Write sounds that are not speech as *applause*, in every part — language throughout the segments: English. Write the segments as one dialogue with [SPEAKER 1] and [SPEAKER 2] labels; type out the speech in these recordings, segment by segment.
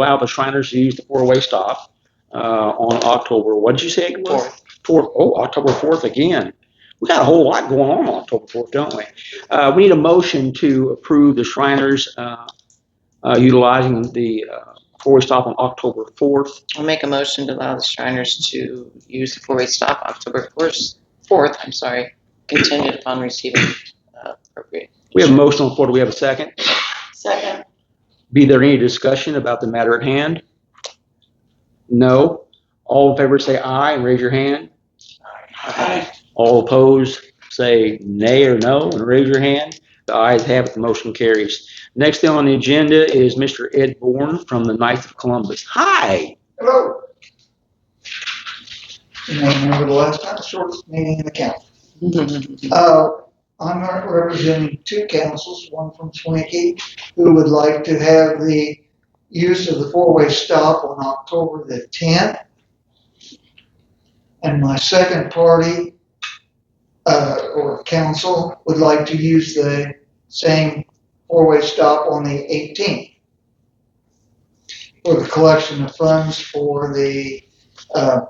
[SPEAKER 1] Alba Shriners used the four-way stop uh, on October, what did you say it was?
[SPEAKER 2] Fourth.
[SPEAKER 1] Fourth, oh, October 4th again. We got a whole lot going on on October 4th, don't we? Uh, We need a motion to approve the Shriners uh, uh, utilizing the uh, four-way stop on October 4th.
[SPEAKER 2] I'll make a motion to allow the Shriners to use the four-way stop October first, fourth, I'm sorry, contingent upon receiving uh, appropriate.
[SPEAKER 1] We have a motion on the floor. Do we have a second?
[SPEAKER 2] Second.
[SPEAKER 1] Be there any discussion about the matter at hand? No? All in favor say aye and raise your hand. All opposed, say nay or no and raise your hand. The ayes have it, the motion carries. Next thing on the agenda is Mr. Ed Bourne from the Knights of Columbus. Hi!
[SPEAKER 3] Hello. You want to remember the last time, shortest meeting in the county. Uh, I'm representing two councils, one from Twinkie, who would like to have the use of the four-way stop on October the tenth. And my second party, uh, or council would like to use the same four-way stop on the eighteenth for the collection of funds for the, uh,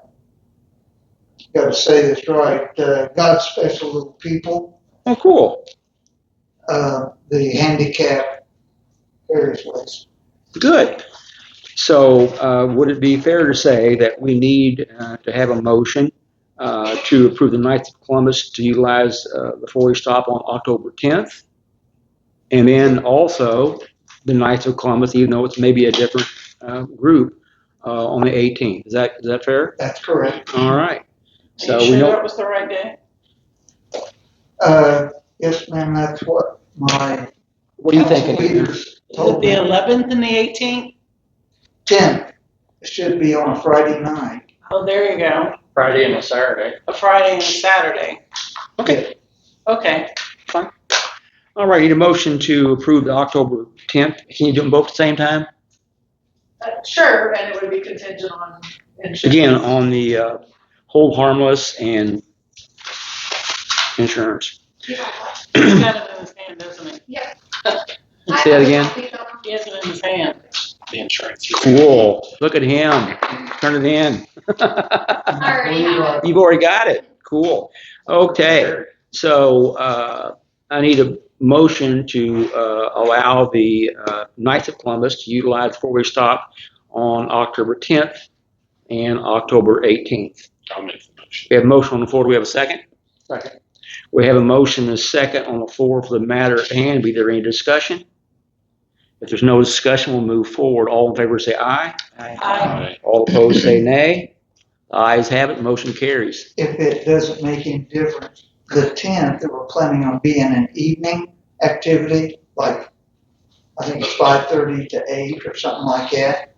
[SPEAKER 3] gotta say this right, uh, God's Special Little People,
[SPEAKER 1] Oh, cool.
[SPEAKER 3] uh, the handicap various ways.
[SPEAKER 1] Good. So uh, would it be fair to say that we need uh, to have a motion uh, to approve the Knights of Columbus to utilize uh, the four-way stop on October 10th? And then also the Knights of Columbus, even though it's maybe a different uh, group, uh, on the 18th. Is that, is that fair?
[SPEAKER 3] That's correct.
[SPEAKER 1] All right. So
[SPEAKER 4] Are
[SPEAKER 1] we
[SPEAKER 4] you sure
[SPEAKER 1] know-
[SPEAKER 4] that was the right day?
[SPEAKER 3] Uh, yes, ma'am, that's what my
[SPEAKER 1] What do you
[SPEAKER 3] council
[SPEAKER 1] think? Adrian?
[SPEAKER 3] leaders
[SPEAKER 4] Is it
[SPEAKER 3] told
[SPEAKER 4] the
[SPEAKER 3] me.
[SPEAKER 4] 11th and the 18th?
[SPEAKER 3] Ten, it should be on a Friday night.
[SPEAKER 4] Oh, there you go.
[SPEAKER 5] Friday and a Saturday.
[SPEAKER 4] A Friday and a Saturday.
[SPEAKER 1] Okay,
[SPEAKER 4] Okay.
[SPEAKER 1] all right, need a motion to approve the October 10th. Can you do them both at the same time?
[SPEAKER 6] Uh, Sure, and it would be contingent on insurance.
[SPEAKER 1] Again, on the uh, hold harmless and insurance.
[SPEAKER 4] He's got it in his hand, doesn't he?
[SPEAKER 6] Yeah.
[SPEAKER 1] Say that again.
[SPEAKER 4] He has it in his hand.
[SPEAKER 5] The insurance.
[SPEAKER 1] Cool, look at him, turn it in.
[SPEAKER 6] already have it.
[SPEAKER 1] You've already got it, cool. Okay, so uh, I need a motion to uh, allow the uh, Knights of Columbus to utilize four-way stop on October 10th and October 18th.
[SPEAKER 5] I'll make the motion.
[SPEAKER 1] We have a motion on the floor. Do we have a second?
[SPEAKER 3] Second.
[SPEAKER 1] We have a motion and a second on the floor for the matter at hand. Be there any discussion? If there's no discussion, we'll move forward. All in favor say aye.
[SPEAKER 6] Uh,
[SPEAKER 4] I,
[SPEAKER 1] All opposed say nay. The Ayes have it, motion carries.
[SPEAKER 3] If it doesn't make any difference, the tenth, that we're planning on being an evening activity, like, I think it's five thirty to eight or something like that,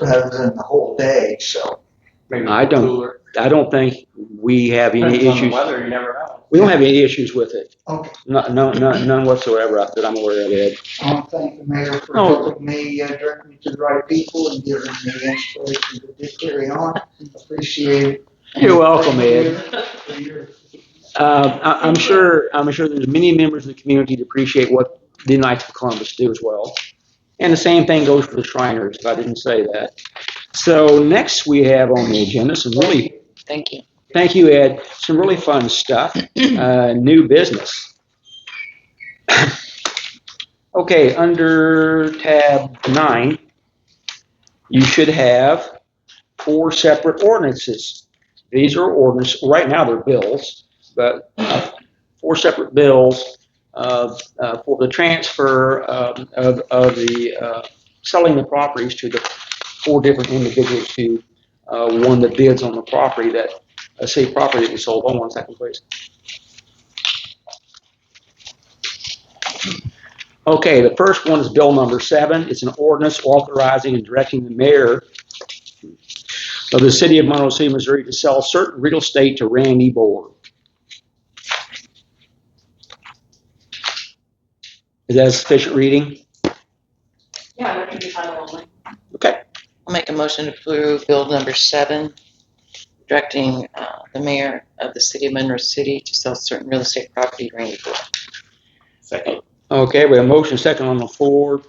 [SPEAKER 3] rather than the whole day, so.
[SPEAKER 1] I don't, I don't think we have any
[SPEAKER 5] Depends on the
[SPEAKER 1] issues.
[SPEAKER 5] weather, you never know.
[SPEAKER 1] We don't have any issues with it.
[SPEAKER 3] Okay,
[SPEAKER 1] No- no- no- None whatsoever that I'm aware of, Ed.
[SPEAKER 3] I want to thank the mayor for
[SPEAKER 1] Oh.
[SPEAKER 3] helping me uh, direct me to the right people and giving me inspiration to do- carry on. Appreciate it.
[SPEAKER 1] You're welcome, Ed.
[SPEAKER 3] For your
[SPEAKER 1] Uh, I- I'm sure, I'm sure there's many members of the community that appreciate what the Knights of Columbus do as well. And the same thing goes for the Shriners, if I didn't say that. So next we have on the agenda some really,
[SPEAKER 2] *laughs* Thank you.
[SPEAKER 1] thank you, Ed, some really fun stuff, uh, new business. Okay, under tab nine, you should have four separate ordinances. These are ordinance, right now they're bills, but uh, four separate bills uh, uh, for the transfer um, of, of the, uh, selling the properties to the four different individuals who uh, won the bids on the property that, a city property that we sold. Hold on one second, please. Okay, the first one is bill number seven. It's an ordinance authorizing and directing the mayor of the city of Monroe City, Missouri to sell certain real estate to Randy Board. Is that sufficient reading?
[SPEAKER 6] Yeah, it would be title only.
[SPEAKER 1] Okay.
[SPEAKER 2] I'll make a motion to approve bill number seven, directing uh, the mayor of the city of Monroe City to sell certain real estate property to Randy Boyd.
[SPEAKER 5] Second.
[SPEAKER 1] Okay, we have a motion second on the floor